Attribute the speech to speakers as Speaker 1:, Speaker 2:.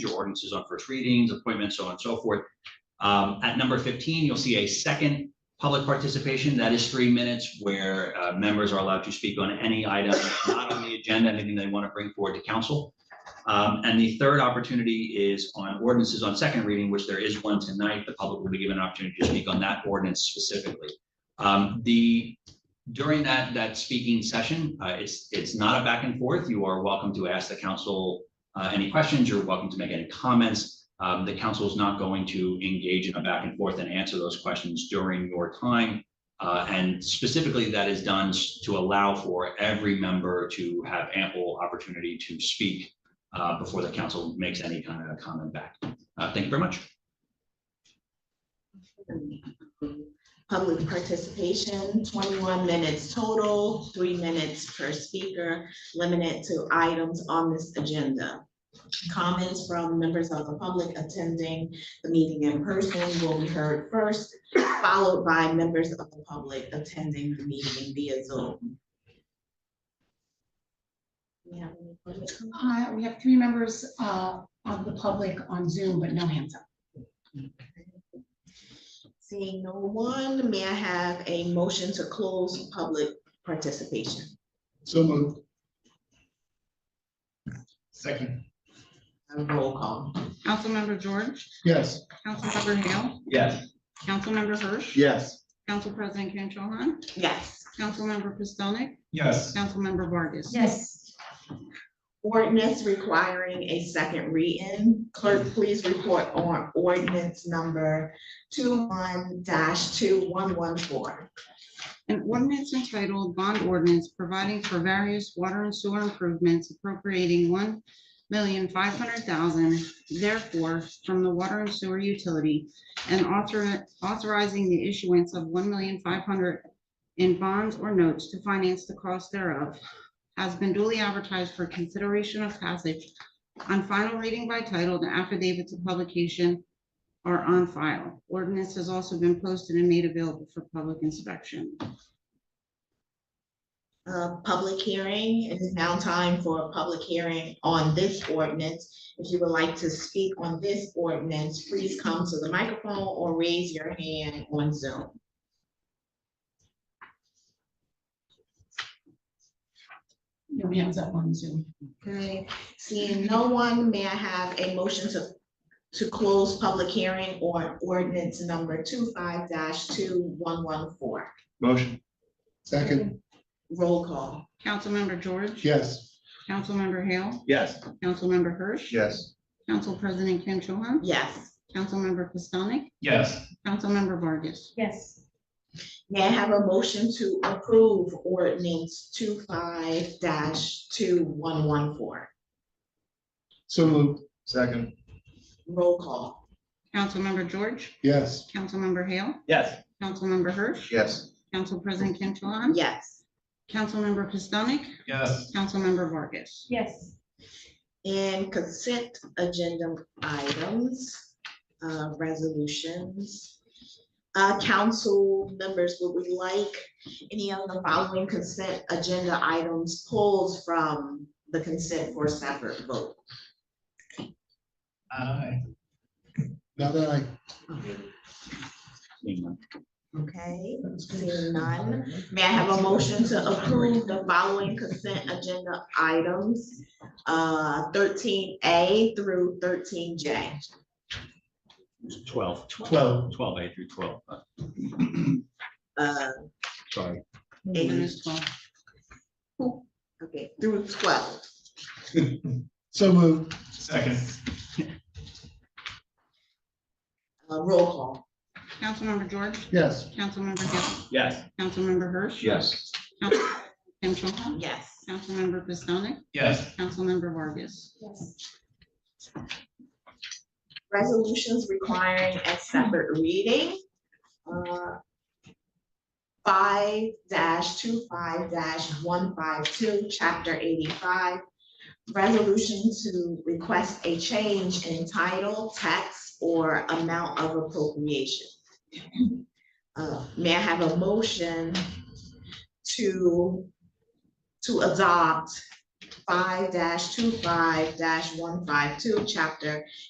Speaker 1: your ordinances on first readings, appointments, so on and so forth. Um, at number fifteen, you'll see a second public participation. That is three minutes where, uh, members are allowed to speak on any item not on the agenda, anything they want to bring forward to council. Um, and the third opportunity is on ordinances on second reading, which there is one tonight. The public will be given an opportunity to speak on that ordinance specifically. Um, the during that, that speaking session, uh, it's, it's not a back and forth. You are welcome to ask the council uh, any questions. You're welcome to make any comments. Um, the council is not going to engage in a back and forth and answer those questions during your time. Uh, and specifically, that is done s- to allow for every member to have ample opportunity to speak uh, before the council makes any kind of comment back. Uh, thank you very much.
Speaker 2: Public participation, twenty-one minutes total, three minutes per speaker, limited to items on this agenda. Comments from members of the public attending the meeting in person will be heard first, followed by members of the public attending the meeting via Zoom. We have any public comment?
Speaker 3: Uh, we have three members, uh, of the public on Zoom, but no hands up.
Speaker 2: Seeing no one, may I have a motion to close public participation?
Speaker 4: So moved. Second.
Speaker 2: A Roll call.
Speaker 5: Councilmember George,
Speaker 4: Yes.
Speaker 5: Councilmember Hale,
Speaker 1: Yes.
Speaker 5: Councilmember Hirsch,
Speaker 4: Yes.
Speaker 5: Council President Kim Cho Han,
Speaker 2: Yes.
Speaker 5: Councilmember Pistonik,
Speaker 4: Yes.
Speaker 5: Councilmember Vargas.
Speaker 3: Yes.
Speaker 2: Ordinance requiring a second reading. Clerk, please report on ordinance number two two one one four.
Speaker 5: An ordinance entitled Bond Ordinance Providing for Various Water and Sewer Improvements Appropriating One Million Five Hundred Thousand, therefore, from the Water and Sewer Utility and author- authorizing the issuance of one million five hundred in bonds or notes to finance the cost thereof has been duly advertised for consideration of passage on final reading by title, the affidavits of publication are on file. Ordinance has also been posted and made available for public inspection.
Speaker 2: Uh, public hearing, it is now time for a public hearing on this ordinance. If you would like to speak on this ordinance, please come to the microphone or raise your hand on Zoom.
Speaker 3: No hands up on Zoom.
Speaker 2: Okay, seeing no one, may I have a motion to, to close public hearing on ordinance number two two one one four?
Speaker 4: Motion. Second.
Speaker 2: Roll call.
Speaker 5: Councilmember George.
Speaker 4: Yes.
Speaker 5: Councilmember Hale.
Speaker 4: Yes.
Speaker 5: Councilmember Hirsch.
Speaker 4: Yes.
Speaker 5: Council President Kim Cho Han.
Speaker 2: Yes.
Speaker 5: Councilmember Pistonik.
Speaker 4: Yes.
Speaker 5: Councilmember Vargas.
Speaker 3: Yes.
Speaker 2: May I have a motion to approve ordinance two two one one four?
Speaker 4: So moved. Second.
Speaker 2: Roll call.
Speaker 5: Councilmember George.
Speaker 4: Yes.
Speaker 5: Councilmember Hale.
Speaker 4: Yes.
Speaker 5: Councilmember Hirsch.
Speaker 4: Yes.
Speaker 5: Council President Kim Cho Han.
Speaker 2: Yes.
Speaker 5: Councilmember Pistonik.
Speaker 4: Yes.
Speaker 5: Councilmember Vargas.
Speaker 3: Yes.
Speaker 2: And consent agenda items, uh, resolutions. Uh, Council members, would we like any of the following consent agenda items pulled from the consent for separate vote?
Speaker 4: Aye. Now that I.
Speaker 2: Okay, seeing none. May I have a motion to approve the following consent agenda items? uh, Thirteen A through thirteen J.
Speaker 1: Twelve.
Speaker 4: Twelve.
Speaker 1: Twelve A through twelve. uh,
Speaker 2: Uh,
Speaker 1: Sorry.
Speaker 2: Okay,
Speaker 5: Ms. Twelve.
Speaker 2: through twelve.
Speaker 4: So moved. Second.
Speaker 2: Uh, Roll call.
Speaker 5: Councilmember George.
Speaker 4: Yes.
Speaker 5: Councilmember Hale.
Speaker 1: Yes.
Speaker 5: Councilmember Hirsch.
Speaker 1: Yes.
Speaker 5: Council President Kim Cho Han.
Speaker 2: Yes.
Speaker 5: Councilmember Pistonik.
Speaker 4: Yes.
Speaker 5: Councilmember Vargas.
Speaker 3: Yes.
Speaker 2: Resolutions requiring a separate reading. uh, Five dash two five dash one five two, chapter eighty-five. Resolution to request a change in title, tax, or amount of appropriation. Uh, May I have a motion to, to adopt five dash two five dash one five two, chapter